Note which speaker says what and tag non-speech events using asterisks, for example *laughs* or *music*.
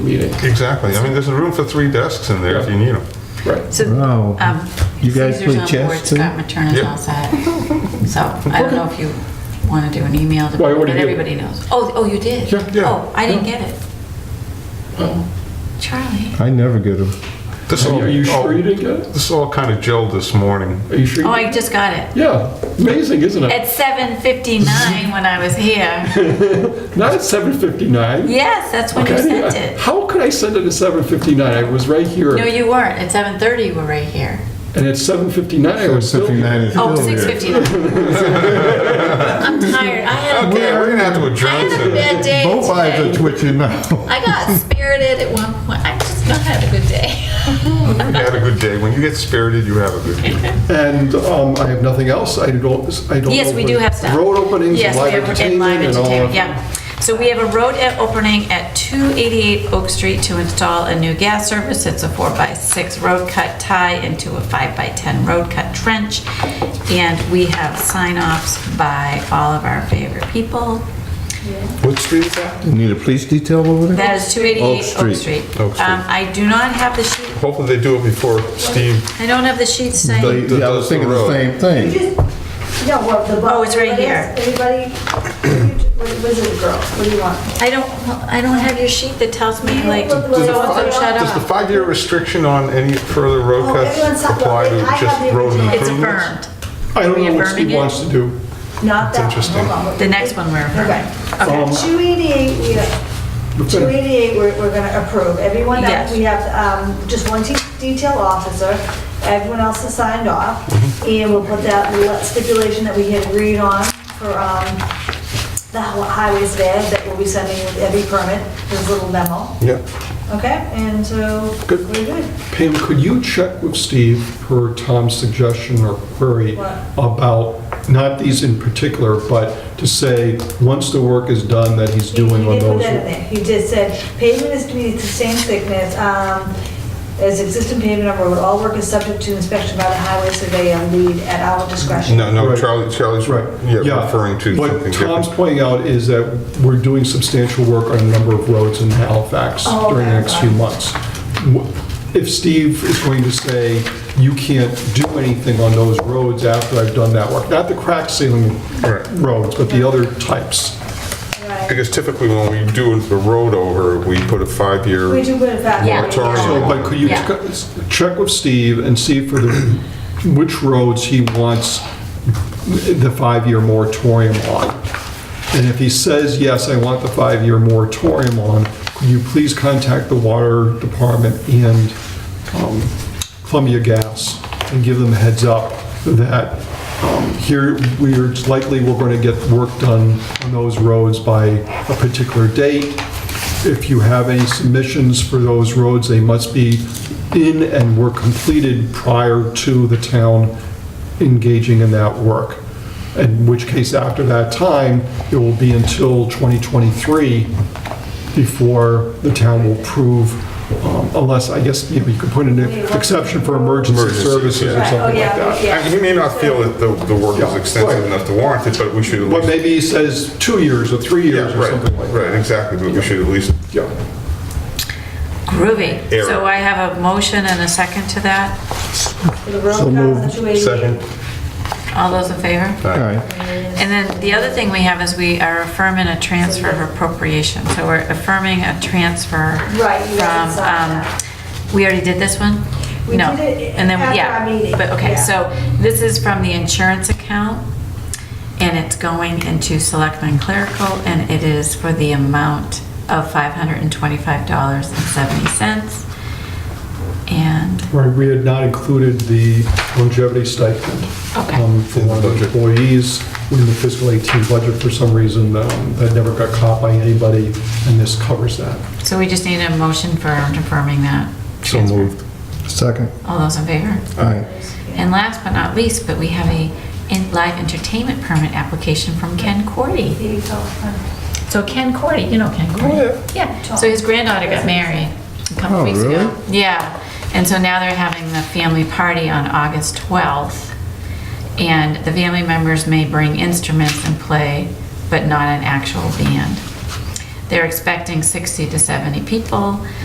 Speaker 1: meeting.
Speaker 2: Exactly. I mean, there's room for three desks in there if you need them.
Speaker 1: Right.
Speaker 3: So,
Speaker 4: Wow.
Speaker 3: um,
Speaker 4: You guys
Speaker 3: Caesar's
Speaker 4: play
Speaker 3: on
Speaker 4: chess,
Speaker 3: board,
Speaker 4: too?
Speaker 3: Scott Materna's
Speaker 2: Yeah.
Speaker 3: all set. So I don't know if you want to do an email to,
Speaker 1: Well, I
Speaker 3: but
Speaker 1: already did.
Speaker 3: everybody knows. Oh, oh, you did?
Speaker 1: Yeah,
Speaker 2: yeah.
Speaker 3: Oh, I didn't get it.
Speaker 1: Oh.
Speaker 3: Charlie.
Speaker 4: I never get them.
Speaker 2: This all,
Speaker 1: Are you
Speaker 2: all-
Speaker 1: sure you didn't get it?
Speaker 2: this all kind of gelled this morning.
Speaker 1: Are you sure? you-
Speaker 3: Oh, I just got it.
Speaker 1: Yeah, amazing, isn't it?
Speaker 3: At 7:59 when I was here.
Speaker 1: Not at 7:59.
Speaker 3: Yes, that's when you
Speaker 1: Okay, I-
Speaker 3: sent it.
Speaker 1: How could I send it at 7:59? I was right here,
Speaker 3: No, you weren't. At 7:30 you were right here.
Speaker 1: and at 7:59 I was still here.
Speaker 3: Oh, 6:59. I'm tired. I had a
Speaker 2: Okay,
Speaker 3: bad,
Speaker 2: we're gonna have to
Speaker 3: I
Speaker 2: adjourn
Speaker 3: had a
Speaker 2: to
Speaker 3: bad day
Speaker 4: Both eyes are
Speaker 3: today.
Speaker 4: twitching now.
Speaker 3: I got spirited at one point. I've just not had a good day.
Speaker 2: *laughs*
Speaker 3: *laughs*
Speaker 2: You had a good day. When you get spirited, you have a good day.
Speaker 1: And um, I have nothing else. I don't, I don't.
Speaker 3: Yes,
Speaker 1: know
Speaker 3: we
Speaker 1: what-
Speaker 3: do have stuff.
Speaker 1: Road openings, and
Speaker 3: Yes, we
Speaker 1: live
Speaker 3: have and live
Speaker 1: entertainment and all.
Speaker 3: entertainment, yeah. So we have a road e- opening at 288 Oak Street to install a new gas service. It's a four by six road cut tie into a five by 10 road cut trench. And we have sign offs by all of our favorite people.
Speaker 2: What street is that?
Speaker 4: You need a police detail over there?
Speaker 3: That is 288 Oak
Speaker 4: Oak Street.
Speaker 3: Street.
Speaker 2: Oak Street.
Speaker 3: Um, I do not have the sheet,
Speaker 2: Hopefully they do it before Steve.
Speaker 3: I don't have the sheet
Speaker 4: They-
Speaker 3: signed.
Speaker 4: yeah, I was thinking the same thing.
Speaker 5: No, well, the book.
Speaker 3: Oh, it's right here.
Speaker 5: Everybody, what was it, girl? What do you want?
Speaker 3: I don't, I don't have your sheet that tells me like,
Speaker 5: Does the
Speaker 3: so-and-so
Speaker 5: file-
Speaker 3: shut
Speaker 2: Does the
Speaker 3: up.
Speaker 2: five-year restriction on any further
Speaker 5: Oh,
Speaker 2: road cuts
Speaker 5: everyone's-
Speaker 2: apply to
Speaker 5: I have
Speaker 2: just
Speaker 5: the
Speaker 2: road
Speaker 5: original.
Speaker 3: It's
Speaker 2: improvements?
Speaker 3: affirmed.
Speaker 1: I don't know what
Speaker 3: Reaffirming
Speaker 1: Steve
Speaker 3: it?
Speaker 1: wants to do.
Speaker 5: Not that one,
Speaker 2: interesting.
Speaker 5: hold on.
Speaker 3: The next one we're
Speaker 5: Okay.
Speaker 1: Um,
Speaker 5: 288, we
Speaker 1: We're
Speaker 5: are,
Speaker 1: gonna-
Speaker 5: 288, we're, we're gonna approve. Everyone
Speaker 3: Yes.
Speaker 5: else, we have, um, just one te- detail officer, everyone else has signed off,
Speaker 1: Mm-hmm.
Speaker 5: and we'll put that le- stipulation that we had agreed on for, um, the hi- highways there that we'll be sending with every permit, this little memo,
Speaker 2: Yeah.
Speaker 5: okay? And so, we're
Speaker 1: Good.
Speaker 5: good.
Speaker 1: Pam, could you check with Steve per Tom's suggestion or query
Speaker 5: What?
Speaker 1: about, not these in particular, but to say, once the work is done, that he's doing on
Speaker 5: He did put
Speaker 1: those?
Speaker 5: that in there. He just said pavement is to be the same thickness um, as existing pavement on road. All work is subject to inspection by the highway surveyor lead at our discretion.
Speaker 2: No, no,
Speaker 1: Right.
Speaker 2: Charlie, Charlie's
Speaker 1: Right,
Speaker 2: yeah,
Speaker 1: yeah.
Speaker 2: referring to something
Speaker 1: What Tom's
Speaker 2: different.
Speaker 1: pointing out is that we're doing substantial work on a number of roads in Halifax
Speaker 5: Oh,
Speaker 1: during the
Speaker 5: okay,
Speaker 1: next few
Speaker 5: okay.
Speaker 1: months. Wh- If Steve is going to say, you can't do anything on those roads after I've done that work, not the crack sealing
Speaker 2: Right.
Speaker 1: roads, but the other types.
Speaker 5: Right.
Speaker 2: Because typically when we do the road over, we put a five-year.
Speaker 5: We do put it back.
Speaker 3: Yeah.
Speaker 2: Moratorium.
Speaker 1: So, but could you
Speaker 3: Yeah.
Speaker 1: check- check with Steve and see for the, which roads he wants the five-year moratorium on? And if he says, yes, I want the five-year moratorium on, could you please contact the water department and um, Columbia Gas and give them a heads up that um, here, we're it's likely, we're going to get work done on those roads by a particular date. If you have any submissions for those roads, they must be in and were completed prior to the town engaging in that work. In which case, after that time, it will be until 2023 before the town will approve, um, unless, I guess, you know, you could put in an exception for emergency
Speaker 2: Emergency,
Speaker 1: services or
Speaker 2: yeah.
Speaker 1: something like
Speaker 5: Right, oh, yeah,
Speaker 1: that.
Speaker 5: yeah.
Speaker 2: I mean, He may not feel that the, the work is
Speaker 1: Yeah,
Speaker 2: extensive
Speaker 1: right.
Speaker 2: enough to warrant it, but we should at least.
Speaker 1: But maybe he says two years or three
Speaker 2: Yeah,
Speaker 1: years or
Speaker 2: right,
Speaker 1: something like that.
Speaker 2: Right, exactly, but we should at least,
Speaker 1: Yeah.
Speaker 3: Groovy.
Speaker 2: Error.
Speaker 3: So I have a motion and a second to that.
Speaker 5: For the road
Speaker 4: So
Speaker 5: cuts,
Speaker 4: moved.
Speaker 5: the 288.
Speaker 2: second.
Speaker 3: All those in favor?
Speaker 2: All
Speaker 4: All
Speaker 2: right.
Speaker 4: right.
Speaker 3: And then the other thing we have is we are affirming a transfer of appropriation. So we're affirming a transfer.
Speaker 5: Right, you
Speaker 3: From,
Speaker 5: guys saw
Speaker 3: um,
Speaker 5: that.
Speaker 3: we already did this one?
Speaker 5: We
Speaker 3: No.
Speaker 5: did it
Speaker 3: And then
Speaker 5: after
Speaker 3: yeah,
Speaker 5: our meeting,
Speaker 3: But, okay,
Speaker 5: yeah.
Speaker 3: so this is from the insurance account, and it's going into selectmen clerical, and it is for the amount of $525.70. And
Speaker 1: Right, we had not included the longevity stipend
Speaker 3: Okay.
Speaker 1: um, for one of the employees in the fiscal 18 budget for some reason. um, That never got caught by anybody, and this covers that.
Speaker 3: so we just need a motion for confirming that.
Speaker 2: So moved.
Speaker 4: Second.
Speaker 3: All those in favor?
Speaker 4: All right.
Speaker 3: And last but not least, but we have a in- live entertainment permit application from Ken Cordy.
Speaker 5: There you go.
Speaker 3: So Ken Cordy, you know Ken Cordy? Yeah, so his granddaughter got married a couple
Speaker 4: Oh,
Speaker 3: weeks ago.
Speaker 4: really?
Speaker 3: Yeah, and so now they're having the family party on August 12th. And the family members may bring instruments and play, but not an actual band. They're expecting 60 to 70 people.